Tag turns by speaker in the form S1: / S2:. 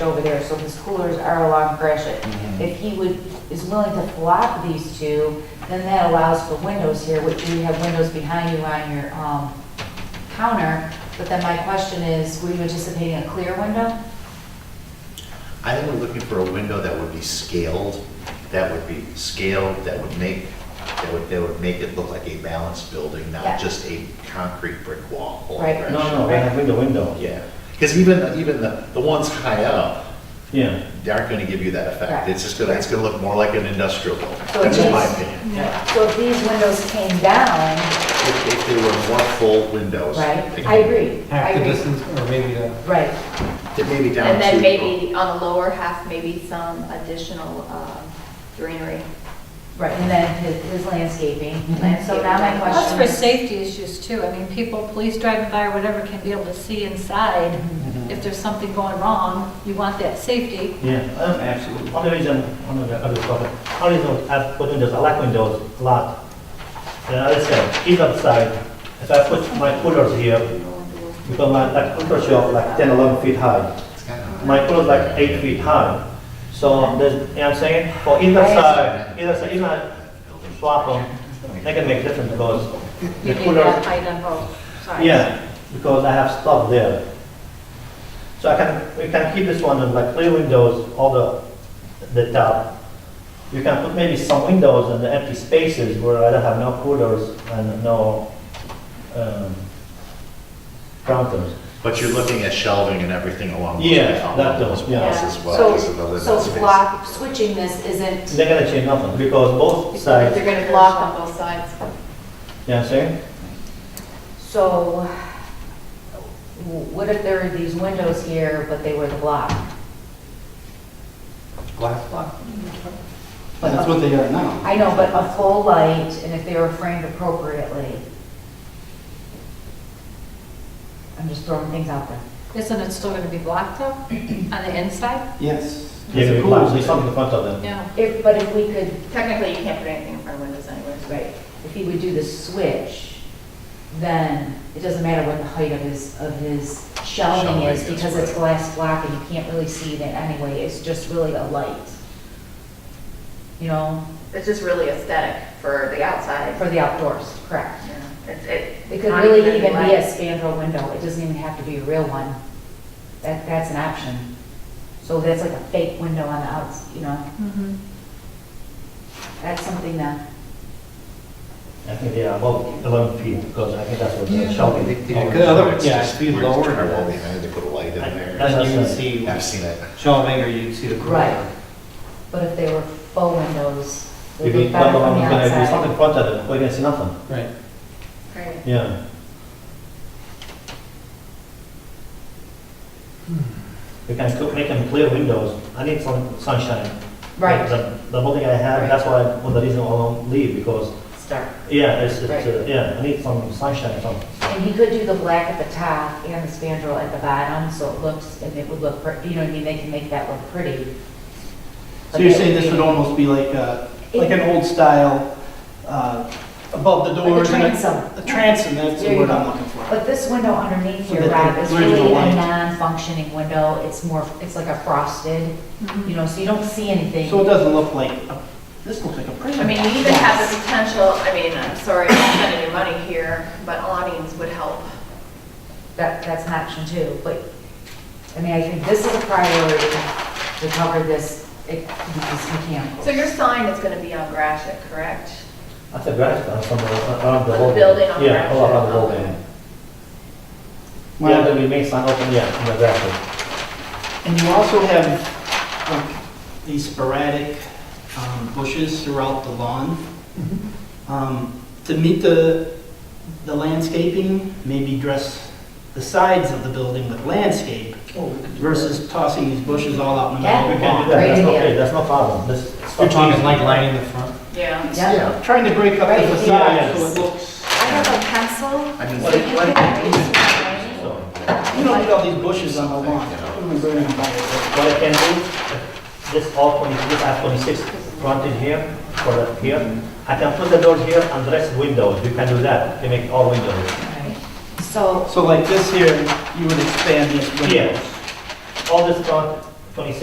S1: over there, so his coolers are along Gresham.
S2: Mm-hmm.
S1: If he would, is willing to flop these two, then that allows for windows here, which you have windows behind you on your, um, counter. But then my question is, were you anticipating a clear window?
S2: I think we're looking for a window that would be scaled, that would be scaled, that would make, that would, that would make it look like a balanced building,
S1: Yeah.
S2: not just a concrete brick wall. all
S1: Right.
S2: around.
S1: No,
S3: No, no, we have window, window,
S2: Yeah, because even, even the, the ones high up,
S3: yeah.
S2: they aren't gonna give you that effect.
S1: Right.
S2: It's just gonna, it's gonna look more like an industrial building.
S1: So
S2: That's just my
S1: these-
S2: opinion.
S3: Yeah.
S1: So if these windows came down,
S2: If, if there were more full windows.
S1: right?
S2: they-
S1: I agree, I
S4: half the
S1: agree.
S4: distance, or maybe uh, the,
S1: Right,
S2: They may be down to.
S5: And then maybe on the lower half, maybe some additional um, greenery.
S1: right, and then his, his landscaping.
S2: Mm-hmm.
S1: And so now
S5: Landscaping.
S1: my
S6: That's
S1: question
S6: for
S1: is,
S6: safety issues too. I mean, people, police driving by or whatever can be able to see inside. If there's something going wrong, you want that safety.
S3: Yeah, um, absolutely. One reason, one of the other problem, one reason I put windows, I like windows a lot. And I said, heat outside, if I put my coolers here, because my, like, cooler shelf like 10, 11 feet high.
S2: It's kinda high.
S3: My cooler's like eight feet high. So, there's, you know what I'm saying? For either
S1: Right.
S3: side, either side, even I swap them, they can make difference because
S6: You
S3: the
S6: need
S3: coolers,
S6: that height on
S1: oh,
S6: both sides.
S3: Yeah, because I have stuff there. So I can, we can keep this one in like clear windows, all the, the top. You can put maybe some windows in the empty spaces where I don't have no coolers and no, um, counters.
S2: But you're looking at shelving and everything along. those-
S3: Yeah, that does,
S2: those
S3: yeah.
S2: walls
S1: Yeah.
S2: As well
S1: so,
S2: as the living
S1: so
S2: space.
S1: block, switching this isn't,
S3: They're gonna change nothing because both
S5: They're
S3: sides, you know
S5: going to block on both sides.
S3: what I'm saying?
S1: so w- what if there were these windows here, but they were the block?
S4: glass block. That's what they are now.
S1: I know, but a full light, and if they were framed appropriately. I'm just throwing things out there.
S6: Isn't it still going to be blocked though, on the inside?
S4: Yes.
S3: Yeah, we close, there's something in front of them.
S6: Yeah.
S1: If, but if we could,
S5: Technically, you can't put anything in front of windows anyways, right?
S1: right, if he would do the switch, then it doesn't matter what the height of his, of his shelving
S2: Shelving
S1: is,
S2: is,
S1: because it's
S2: right.
S1: glass block and you can't really see it anyway, it's just really a light. You know,
S5: It's just really aesthetic for the outside.
S1: for the outdoors, correct.
S5: Yeah, it's- It
S1: It could
S5: not
S1: really even be
S5: light.
S1: a spandrel window, it doesn't even have to be a real one. That, that's an option. So that's like a fake window on the outs, you know,
S5: Mm-hmm.
S6: Mhm.
S1: that's something that,
S3: I think they are about eleven feet because I think that's what
S2: Yeah,
S3: they're
S2: no,
S3: showing.
S2: they- they do
S4: Okay.
S2: good.
S4: Other-
S2: It's
S4: yeah,
S2: just
S4: be
S2: weird to
S4: lower.
S2: turn our wall behind, They put a light in there.
S4: Then you can see
S2: I've seen it.
S4: shelving, or you'd see the cool.
S1: Right. but if they were faux windows, they'd
S3: You can,
S1: look
S3: come
S1: better
S3: along,
S1: from the
S3: you can do something
S1: outside.
S3: in front of them, we can see nothing.
S4: Right.
S5: Right.
S3: Yeah. We can cook- make them clear windows. I need some sunshine.
S1: Right,
S3: The, the building I have, that's why, one of the reason I don't leave, because,
S1: start.
S3: yeah, it's, it's, uh,
S1: Right.
S3: yeah, I need some sunshine, some,
S1: And he could do the black at the top and the spandrel at the bottom, so it looks, and it would look, pret- you know what I mean, they can make that look pretty.
S7: So you're saying this would almost be like a, like an old style, uh, above the
S1: Like a
S7: doors? and
S1: transom.
S7: A transom, that's
S1: There
S7: the
S1: you
S7: word
S1: go.
S7: I'm looking for.
S1: But this window underneath
S7: So
S1: here, Rob,
S7: that the
S1: is
S7: original
S1: really a
S7: light-
S1: non-functioning window, it's more, it's like a frosted, you know, so you don't see anything.
S7: So it doesn't look like, a- this looks like a prison.
S5: I mean, you even have the potential, I mean, I'm sorry I'm spending your money here, but awnings would help.
S1: That, that's an option too, but, I mean, I think this is a priority to cover this, it, because mechanical.
S5: So your sign is going to be on Grashit, correct?
S3: that's a grass, uh, from the- around the
S5: The
S3: whole.
S5: building on
S3: Yeah, all
S5: grass.
S3: around the building. Yeah,
S7: Well-
S3: then we make some open, yeah, in the grass.
S7: And you also have like these sporadic um, bushes throughout the lawn. Um, To meet the, the landscaping, maybe dress the sides of the building with landscape versus tossing these bushes all out in the
S3: We
S7: middle
S3: can
S7: of
S3: do
S7: the lawn.
S3: that, that's
S1: Great idea.
S3: okay, that's no problem, this.
S4: You're talking like lining the front.
S5: Yeah.
S1: Yeah.
S2: Yeah.
S7: Trying to break up
S1: Right,
S7: the facade
S3: yes.
S7: so it looks,
S5: I have a pencil.
S2: I mean,
S5: So you
S7: what-
S5: can-
S3: So-
S7: you don't need all these bushes on the lawn. What are we burning by?
S3: What I can do, this all 26, I have 26 fronted here, for the, here. I can put the doors here and rest windows, you can do that, you make all windows.
S1: Right. So,
S7: So like this here, you would expand this window.
S3: Here, all this front, twenty-six